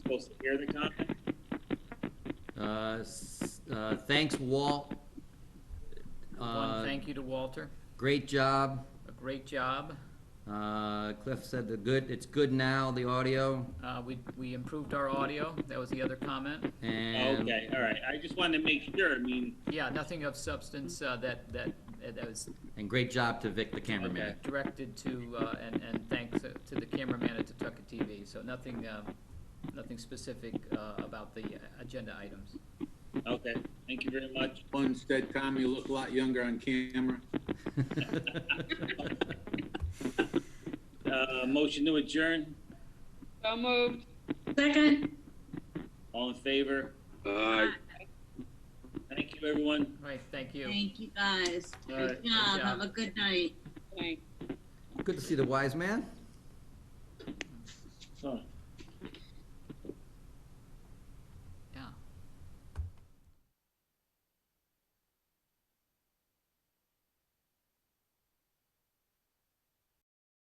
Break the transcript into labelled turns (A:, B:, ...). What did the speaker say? A: supposed to hear the comment?
B: Uh, s- uh, thanks, Walt. Uh,
C: One, thank you to Walter,
B: Great job.
C: a great job.
B: Uh, Cliff said the good, it's good now, the audio,
C: Uh, we, we improved our audio, that was the other comment.
B: and.
A: Okay, all right. I just wanted to make sure, I mean,
C: Yeah, nothing of substance, uh, that, that, that was
B: And great job to Vic, the cameraman.
C: directed to, uh, and, and thanks to the cameraman at Tucka TV. So nothing, uh, nothing specific, uh, about the agenda items.
A: okay, thank you very much.
D: One said, Tom, you look a lot younger on camera.
A: Uh, motion to adjourn,
E: So moved.
F: Second,
A: all in favor?
D: Aye.
A: Thank you, everyone.
C: Right, thank you.
F: thank you guys.
A: All right.
F: Good job.
C: job.
F: Have a good night.
E: Thanks.
B: Good to see the wise man.
A: Huh.